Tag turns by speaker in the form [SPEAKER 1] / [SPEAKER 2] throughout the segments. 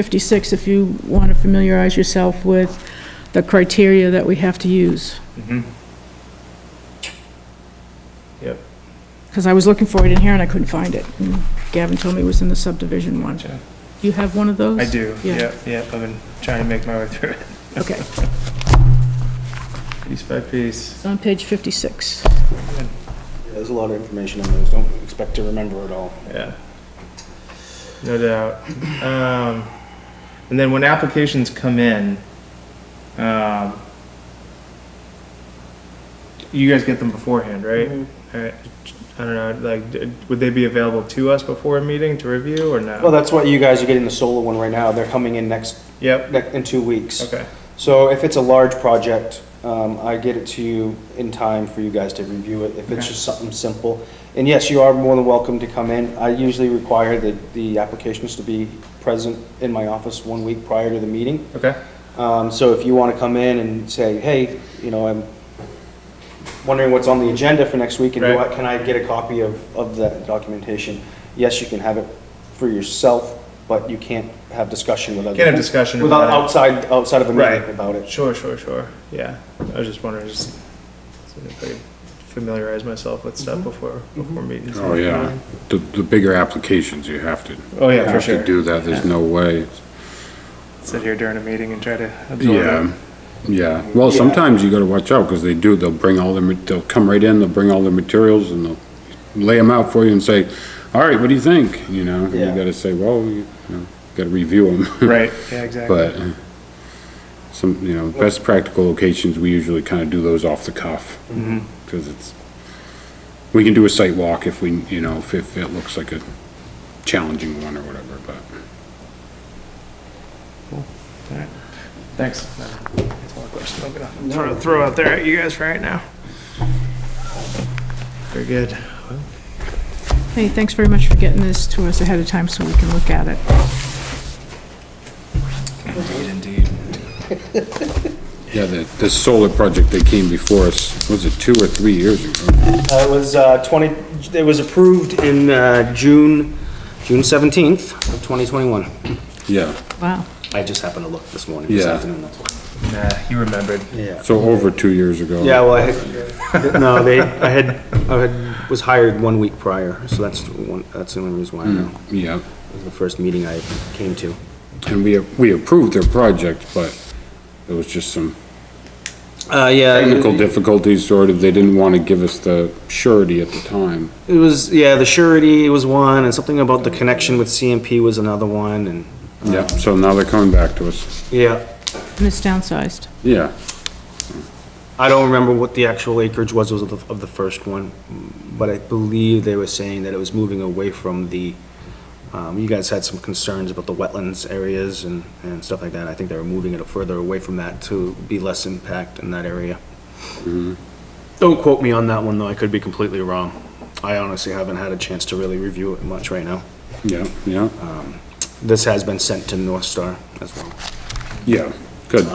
[SPEAKER 1] 56 if you want to familiarize yourself with the criteria that we have to use.
[SPEAKER 2] Mm-hmm. Yep.
[SPEAKER 1] Because I was looking for it in here and I couldn't find it. And Gavin told me it was in the subdivision one.
[SPEAKER 2] Gotcha.
[SPEAKER 1] Do you have one of those?
[SPEAKER 2] I do,
[SPEAKER 1] Yeah.
[SPEAKER 2] yep, yep, I've been trying to make my way through it,
[SPEAKER 1] Okay,
[SPEAKER 2] piece by piece.
[SPEAKER 1] it's on page 56.
[SPEAKER 3] Yeah, There's a lot of information on those, don't expect to remember it all.
[SPEAKER 2] Yeah. No doubt. Um, and then when applications come in, um, you guys get them beforehand, right? Alright, I don't know, like, d- would they be available to us before a meeting to review or no?
[SPEAKER 3] Well, that's why you guys are getting the solar one right now, they're coming in next,
[SPEAKER 2] Yep,
[SPEAKER 3] ne- in two weeks.
[SPEAKER 2] okay,
[SPEAKER 3] So if it's a large project, um, I get it to you in time for you guys to review it, if
[SPEAKER 2] Okay.
[SPEAKER 3] it's just something simple. And yes, you are more than welcome to come in, I usually require the, the applications to be present in my office one week prior to the meeting.
[SPEAKER 2] okay,
[SPEAKER 3] Um, so if you want to come in and say, hey, you know, I'm wondering what's on the agenda for next week, and do
[SPEAKER 2] Right.
[SPEAKER 3] I- can I get a copy of, of that documentation? Yes, you can have it for yourself, but you can't have discussion with other.
[SPEAKER 2] Can't have discussion
[SPEAKER 3] Without
[SPEAKER 2] about it.
[SPEAKER 3] outside, outside of a
[SPEAKER 2] Right.
[SPEAKER 3] meeting about it.
[SPEAKER 2] sure, sure, sure, yeah. I was just wondering, just, see if I could familiarize myself with stuff before, before meetings.
[SPEAKER 4] Oh, yeah. The, the bigger applications, you have to.
[SPEAKER 2] Oh, yeah, for
[SPEAKER 4] have to
[SPEAKER 2] sure.
[SPEAKER 4] do that, there's no way.
[SPEAKER 2] Sit here during a meeting and try to absorb
[SPEAKER 4] Yeah,
[SPEAKER 2] it.
[SPEAKER 4] yeah. Well,
[SPEAKER 3] Yeah.
[SPEAKER 4] sometimes you gotta watch out, because they do, they'll bring all the, ma- they'll come right in, they'll bring all the materials, and they'll lay them out for you and say, all right, what do you think? You know, and you
[SPEAKER 3] Yeah.
[SPEAKER 4] gotta say, well, you you know, gotta review them.
[SPEAKER 2] Right, yeah, exactly.
[SPEAKER 4] But uh, some, you know, best practical locations, we usually kind of do those off the cuff.
[SPEAKER 3] Mm-hmm.
[SPEAKER 4] Because it's, we can do a site walk if we, you know, if, if it looks like a challenging one or whatever, but.
[SPEAKER 2] Thanks. That's all the questions I'm gonna throw, throw out there at you guys for right now. Very good.
[SPEAKER 1] Hey, thanks very much for getting this to us ahead of time so we can look at it.
[SPEAKER 2] Indeed, indeed.
[SPEAKER 4] Yeah, the, the solar project that came before us, was it two or three years ago?
[SPEAKER 3] Uh, It was uh, 20, it was approved in uh, June, June 17th of 2021.
[SPEAKER 4] Yeah,
[SPEAKER 1] Wow.
[SPEAKER 3] I just happened to look this morning, this
[SPEAKER 4] Yeah.
[SPEAKER 3] afternoon, that's why.
[SPEAKER 2] Nah, you remembered.
[SPEAKER 3] Yeah.
[SPEAKER 4] so over two years ago.
[SPEAKER 3] Yeah, well, I had, no, they, I had, I had, was hired one week prior, so that's the one, that's the only reason why I know.
[SPEAKER 4] Yeah,
[SPEAKER 3] It was the first meeting I came to.
[SPEAKER 4] and we, we approved their project, but there was just some
[SPEAKER 3] Uh, yeah.
[SPEAKER 4] technical
[SPEAKER 3] it-
[SPEAKER 4] difficulties, sort of, they didn't want to give us the surety at the time.
[SPEAKER 3] It was, yeah, the surety was one, and something about the connection with CMP was another one, and,
[SPEAKER 4] Yeah, so now they're coming back to us.
[SPEAKER 3] yeah.
[SPEAKER 1] And it's downsized.
[SPEAKER 4] Yeah,
[SPEAKER 3] I don't remember what the actual acreage was of the, of the first one, but I believe they were saying that it was moving away from the, um, you guys had some concerns about the wetlands areas and, and stuff like that. I think they were moving it further away from that to be less impact in that area. Don't quote me on that one, though. I could be completely wrong. I honestly haven't had a chance to really review it much right now.
[SPEAKER 4] yeah, yeah,
[SPEAKER 3] This has been sent to North Star as well.
[SPEAKER 4] yeah, good.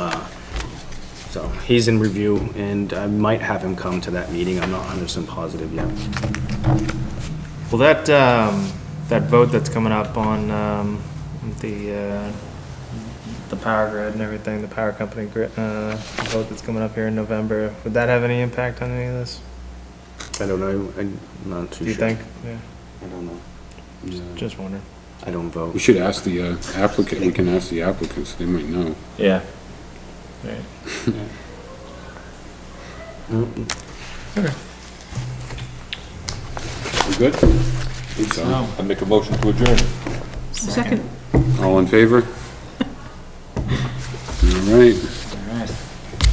[SPEAKER 3] So he's in review, and I might have him come to that meeting. I'm not 100% positive yet.
[SPEAKER 2] Well, that, um, that vote that's coming up on, um, the, uh, the power grid and everything, the power company grid, uh, vote that's coming up here in November, would that have any impact on any of this?
[SPEAKER 3] I don't know, I'm not too sure.
[SPEAKER 2] Do you think? Yeah,
[SPEAKER 3] I don't know.
[SPEAKER 2] just wondering.
[SPEAKER 3] I don't
[SPEAKER 4] We
[SPEAKER 3] vote.
[SPEAKER 4] should ask the uh, applicant, we can ask the applicants, they might know.
[SPEAKER 2] Yeah. Right.
[SPEAKER 4] We good? Think so.
[SPEAKER 5] I make a motion to adjourn.
[SPEAKER 1] Second.
[SPEAKER 4] All in favor? All right.